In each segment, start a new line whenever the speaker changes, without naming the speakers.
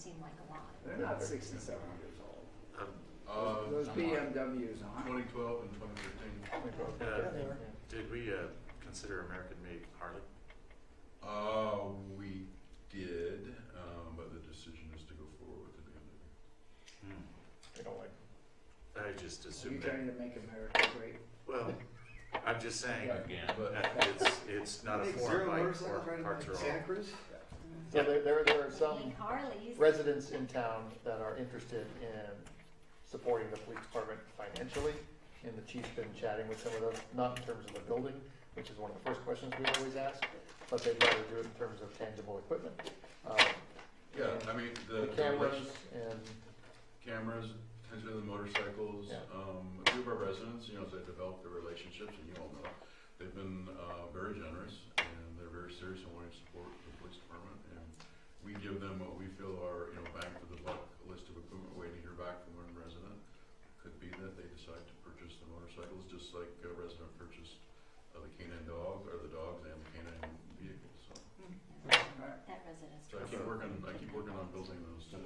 seem like a lot.
They're not sixty-seven years old.
Um,
Uh,
Those BMWs aren't.
2012 and 2013.
uh,
Yeah, they were.
did we uh, consider American-made Harley?
Uh, we did, um, but the decision is to go forward with the BMW.
They don't like
I just
Are you
assumed that.
trying to make America great?
Well, I'm just saying
Again. But
that it's it's not a
Think
foreign
zero
bike.
motorcycles
Foreign
riding
parts are
like
all.
Santa Cruz?
So there, there, there are
Need
some
Harleys.
residents in town that are interested in supporting the police department financially. And the chief's been chatting with some of those, not in terms of a building, which is one of the first questions we always ask, but they'd rather do it in terms of tangible equipment. Um,
Yeah, I mean, the.
The cameras and,
cameras, attention to the motorcycles.
Yeah.
Um, a few of our residents, you know, as they develop their relationships, and you all know, they've been uh, very generous and they're very serious in wanting to support the police department. And we give them what we feel are, you know, bang for the buck list of equipment waiting to hear back from one resident. Could be that they decide to purchase the motorcycles, just like a resident purchased uh, the canine dog or the dogs and the canine vehicle. So,
Mm-hmm. That
Alright.
residence.
so I keep working. I keep working on building those. Too.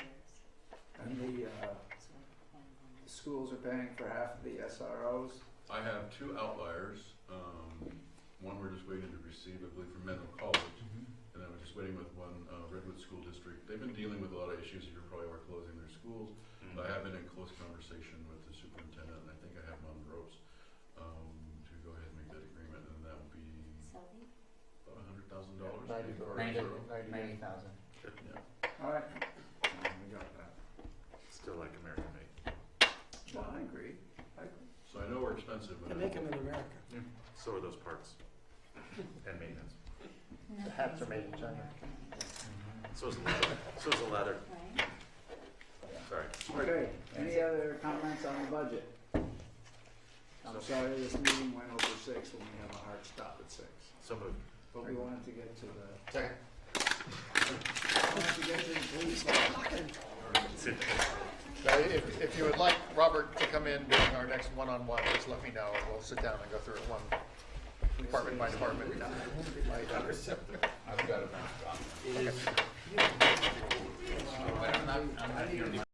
And the, uh, schools are paying for half of the SROs.
I have two outliers. Um, one we're just waiting to receive, I believe, from Menlo College. And then we're just waiting with one uh, Redwood School District. They've been dealing with a lot of issues. You probably are closing their schools.
Mm.
But I have been in close conversation with the superintendent, and I think I have him on the ropes um, to go ahead and make that agreement. And that will be about $100,000.
Ninety
maybe, or
grand.
zero.
Ninety
thousand.
Yeah.
All right. We got that.
Hmm. Still like American-made.
Well, I agree.
So I know we're expensive. but
They make them in America.
So are those parts and maintenance.
The hats are made in China.
So is the leather. So is the leather.
Right?
Sorry.
Okay, any other comments on the budget? I'm sorry, this meeting went over six when we have a hard stop at six,
So moved.
but we wanted to get to the.
Second.
Wanted to get to the police.
Now, if, if you would like Robert to come in during our next one-on-one, just let me know, and we'll sit down and go through it one department by department.
I've got a mask on. But I'm not, I'm not here.